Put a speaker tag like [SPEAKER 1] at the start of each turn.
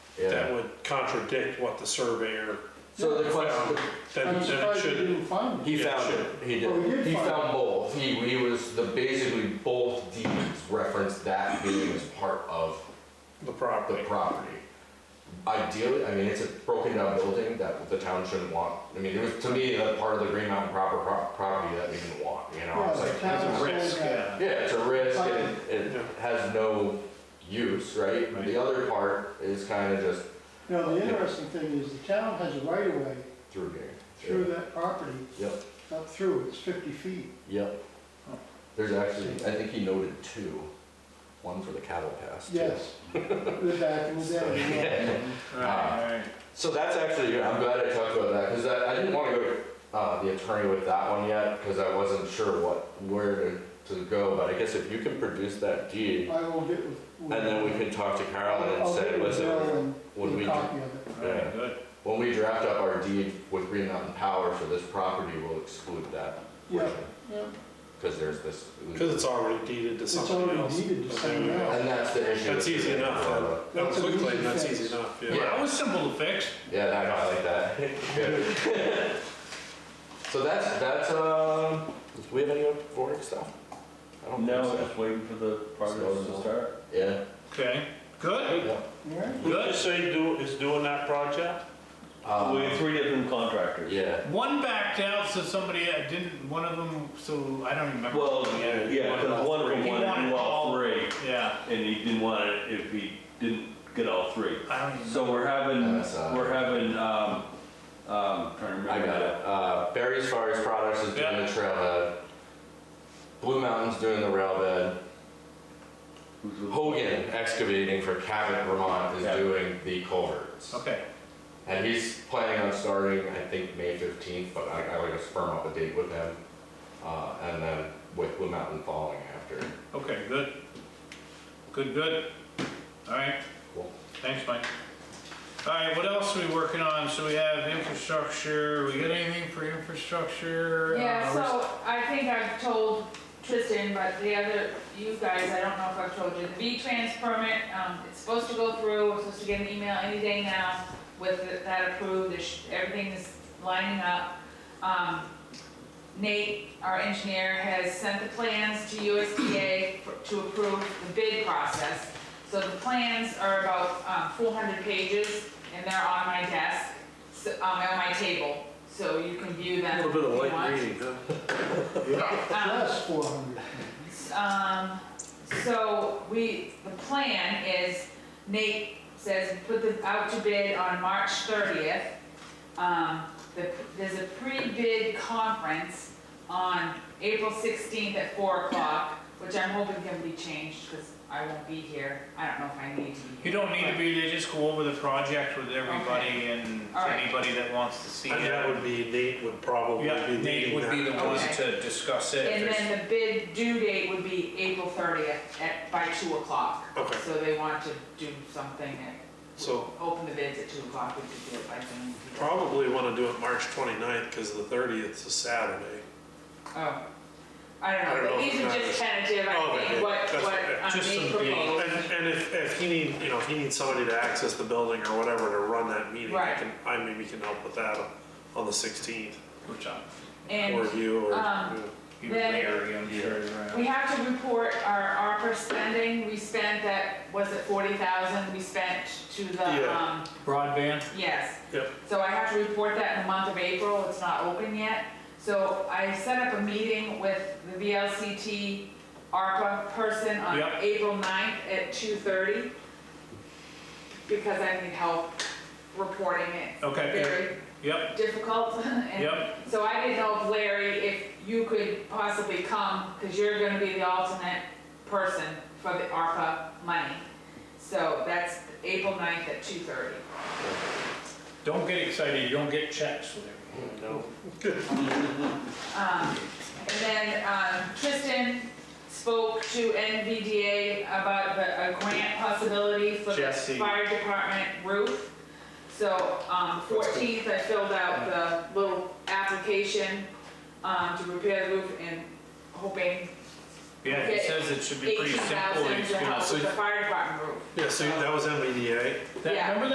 [SPEAKER 1] that
[SPEAKER 2] Yeah.
[SPEAKER 1] would contradict what the surveyor
[SPEAKER 2] So the
[SPEAKER 1] found,
[SPEAKER 2] question,
[SPEAKER 1] then
[SPEAKER 3] I'm
[SPEAKER 1] then it
[SPEAKER 3] surprised you
[SPEAKER 1] should,
[SPEAKER 3] didn't find it.
[SPEAKER 2] he
[SPEAKER 1] Yeah,
[SPEAKER 2] found
[SPEAKER 1] sure.
[SPEAKER 2] it, he
[SPEAKER 3] Oh, he
[SPEAKER 2] did,
[SPEAKER 3] did
[SPEAKER 2] he
[SPEAKER 3] find
[SPEAKER 2] found both, he, he was, the, basically both deeds referenced that being as part of
[SPEAKER 1] the
[SPEAKER 2] the
[SPEAKER 1] property.
[SPEAKER 2] property. Ideally, I mean, it's a broken down building that the town shouldn't want, I mean, it was, to me, that part of the Green Mountain proper, pro- property that we didn't want, you know,
[SPEAKER 3] Yeah,
[SPEAKER 2] it's
[SPEAKER 3] the
[SPEAKER 2] like.
[SPEAKER 3] town
[SPEAKER 4] It's a
[SPEAKER 3] sold
[SPEAKER 4] risk,
[SPEAKER 3] that.
[SPEAKER 4] yeah.
[SPEAKER 2] Yeah, it's a risk and it
[SPEAKER 1] Yeah.
[SPEAKER 2] has no use, right?
[SPEAKER 4] Right.
[SPEAKER 2] The other part is kind of just
[SPEAKER 3] Now, the interesting thing is the town has a right of way
[SPEAKER 2] through game.
[SPEAKER 3] through that property,
[SPEAKER 2] Yep,
[SPEAKER 3] up through, it's fifty feet.
[SPEAKER 2] yep.
[SPEAKER 3] Huh.
[SPEAKER 2] There's actually, I think he noted two, one for the cattle pass. too.
[SPEAKER 3] Yes, we're back in the day.
[SPEAKER 4] Right,
[SPEAKER 2] So that's actually, I'm glad I talked about that, because I, I didn't want to go to uh, the attorney with that one yet, because I wasn't sure what, where to, to go, but I guess if you can produce that
[SPEAKER 3] yeah.
[SPEAKER 2] deed,
[SPEAKER 3] I will get with.
[SPEAKER 2] and then we can talk to Carolyn and
[SPEAKER 3] I'll
[SPEAKER 2] say,
[SPEAKER 3] get with Bill
[SPEAKER 2] listen,
[SPEAKER 3] and
[SPEAKER 2] would
[SPEAKER 3] get a
[SPEAKER 2] we-
[SPEAKER 3] Copy of it.
[SPEAKER 4] right, right, good.
[SPEAKER 2] when we draft up our deed with Green Mountain Power for this property, we'll exclude that
[SPEAKER 3] Yeah,
[SPEAKER 2] portion.
[SPEAKER 3] yeah,
[SPEAKER 2] Because there's this.
[SPEAKER 1] Because it's already deeded to
[SPEAKER 3] It's
[SPEAKER 1] somebody
[SPEAKER 3] already
[SPEAKER 1] else.
[SPEAKER 3] deeded to
[SPEAKER 1] Okay,
[SPEAKER 3] someone
[SPEAKER 1] yeah.
[SPEAKER 3] else.
[SPEAKER 2] And that's the issue.
[SPEAKER 1] That's easy enough, then. That
[SPEAKER 3] That's an
[SPEAKER 1] quickly,
[SPEAKER 3] easy
[SPEAKER 1] that's
[SPEAKER 3] fix.
[SPEAKER 1] easy enough,
[SPEAKER 4] Well,
[SPEAKER 1] yeah.
[SPEAKER 4] that was simple to fix.
[SPEAKER 2] Yeah, that, I like that. Good. So that's, that's, um, do we have any Vorik stuff? I don't think
[SPEAKER 5] No,
[SPEAKER 2] so.
[SPEAKER 5] just waiting for the progress to start.
[SPEAKER 2] Yeah,
[SPEAKER 4] Okay, good,
[SPEAKER 2] yeah.
[SPEAKER 3] All right.
[SPEAKER 6] Who
[SPEAKER 4] good.
[SPEAKER 6] did you say do, is doing that project?
[SPEAKER 2] Um,
[SPEAKER 5] We have three different contractors.
[SPEAKER 2] Yeah,
[SPEAKER 4] One backed out, so somebody uh, didn't, one of them, so I don't remember.
[SPEAKER 5] Well, yeah, because one of them
[SPEAKER 4] He
[SPEAKER 5] wanted to
[SPEAKER 4] wanted
[SPEAKER 5] do all
[SPEAKER 4] all-
[SPEAKER 5] three,
[SPEAKER 4] Yeah,
[SPEAKER 5] and he didn't want it if he didn't get all three.
[SPEAKER 4] I don't even,
[SPEAKER 5] So we're having,
[SPEAKER 2] MSI.
[SPEAKER 5] we're having, um, um, trying to remember.
[SPEAKER 2] uh, I got it. Uh, Barry's Forest Products is doing
[SPEAKER 4] Yeah.
[SPEAKER 2] the trailhead. Blue Mountain's doing the rail bed.
[SPEAKER 5] Who's with-
[SPEAKER 2] Hogan Excavating for Cabot, Vermont is
[SPEAKER 5] Yeah.
[SPEAKER 2] doing the culverts.
[SPEAKER 4] okay,
[SPEAKER 2] And he's planning on starting, I think, May fifteenth, but I, I like to firm up a date with him. Uh, and then with Blue Mountain following after.
[SPEAKER 4] okay, good. Good, good. All right,
[SPEAKER 2] Cool.
[SPEAKER 4] thanks, Mike. All right, what else are we working on? So we have infrastructure, we got anything for infrastructure?
[SPEAKER 7] Yeah,
[SPEAKER 4] Uh,
[SPEAKER 7] so I think I've told Tristan, but the other, you guys, I don't know if I've told you, the V-Trans permit, um, it's supposed to go through, we're supposed to get an email any day now with that approved, There's- everything is lining up. Um, Nate, our engineer, has sent the plans to USDA for- to approve the bid process. So the plans are about uh, 400 pages, and they're on my desk, so- um, on my table, so you can view them if you want.
[SPEAKER 1] huh?
[SPEAKER 3] That's four hundred.
[SPEAKER 7] Um, so we, the plan is Nate says put the, out to bid on March thirtieth. Um, the, there's a pre-bid conference on April sixteenth at four o'clock, which I'm hoping can be changed, cause I won't be here. I don't know if I need to be
[SPEAKER 4] You
[SPEAKER 7] here.
[SPEAKER 4] don't need to
[SPEAKER 7] but-
[SPEAKER 4] be, they just go over the project with everybody and
[SPEAKER 7] All right.
[SPEAKER 4] anybody that wants to see it.
[SPEAKER 1] And that would be, Nate would probably
[SPEAKER 4] Yeah,
[SPEAKER 1] be
[SPEAKER 4] Nate
[SPEAKER 1] leading
[SPEAKER 4] would be the
[SPEAKER 1] that.
[SPEAKER 4] one
[SPEAKER 7] Okay.
[SPEAKER 4] to discuss it.
[SPEAKER 7] And then the bid due date would be April thirtieth at, by two o'clock.
[SPEAKER 1] Okay.
[SPEAKER 7] So they want to do something at
[SPEAKER 1] So
[SPEAKER 7] open the bids at two o'clock, we could do it by Zoom.
[SPEAKER 1] probably want to do it March 29th because the 30th is a Saturday.
[SPEAKER 7] Oh, I
[SPEAKER 1] I
[SPEAKER 7] don't
[SPEAKER 1] don't
[SPEAKER 7] know, but
[SPEAKER 1] know if
[SPEAKER 7] these are
[SPEAKER 1] it's
[SPEAKER 7] just
[SPEAKER 1] not-
[SPEAKER 7] tentative,
[SPEAKER 1] Oh,
[SPEAKER 7] I
[SPEAKER 1] okay,
[SPEAKER 7] think, what,
[SPEAKER 1] that's
[SPEAKER 7] what
[SPEAKER 1] okay.
[SPEAKER 7] um,
[SPEAKER 4] Just
[SPEAKER 7] they
[SPEAKER 4] some dates.
[SPEAKER 7] proposed.
[SPEAKER 1] And, and if, if he need, you know, if he needs somebody to access the building or whatever to run that meeting, I
[SPEAKER 7] Right.
[SPEAKER 1] can, I maybe can help with that on the 16th.
[SPEAKER 4] Which I,
[SPEAKER 1] Or
[SPEAKER 7] And
[SPEAKER 1] you, or.
[SPEAKER 7] um,
[SPEAKER 1] yeah.
[SPEAKER 4] you
[SPEAKER 7] Then-
[SPEAKER 4] Larry, I'm sure,
[SPEAKER 7] we
[SPEAKER 4] right?
[SPEAKER 7] have to report our ARPA spending, we spent that, was it forty thousand, we spent to the,
[SPEAKER 1] Yeah.
[SPEAKER 7] um,
[SPEAKER 4] Broadband?
[SPEAKER 7] yes.
[SPEAKER 1] Yep.
[SPEAKER 7] So I have to report that in the month of April, it's not open yet. So I set up a meeting with the VLCT ARPA person on
[SPEAKER 4] Yep.
[SPEAKER 7] April 9th at 2:30 because I need help reporting it.
[SPEAKER 4] Okay,
[SPEAKER 7] Very
[SPEAKER 4] yep,
[SPEAKER 7] difficult. and
[SPEAKER 4] yep,
[SPEAKER 7] So I didn't know if Larry, if you could possibly come, because you're gonna be the alternate person for the ARPA money. So that's April 9th at 2:30.
[SPEAKER 4] don't get excited, you don't get checks with everything.
[SPEAKER 1] No.
[SPEAKER 7] Um, And then um, Tristan spoke to NVDA about the, a grant possibility for the
[SPEAKER 4] Jesse.
[SPEAKER 7] fire department roof. So um, 14th, I filled out the little application um, to repair the roof and hoping
[SPEAKER 4] Yeah, he
[SPEAKER 7] Okay.
[SPEAKER 4] says it should be pretty simple.
[SPEAKER 7] 18,000
[SPEAKER 4] he's
[SPEAKER 7] to
[SPEAKER 4] gonna-
[SPEAKER 7] help
[SPEAKER 4] so
[SPEAKER 7] with the fire department roof.
[SPEAKER 1] Yeah, so that was E MBDA.
[SPEAKER 4] that-
[SPEAKER 7] yeah.
[SPEAKER 4] Remember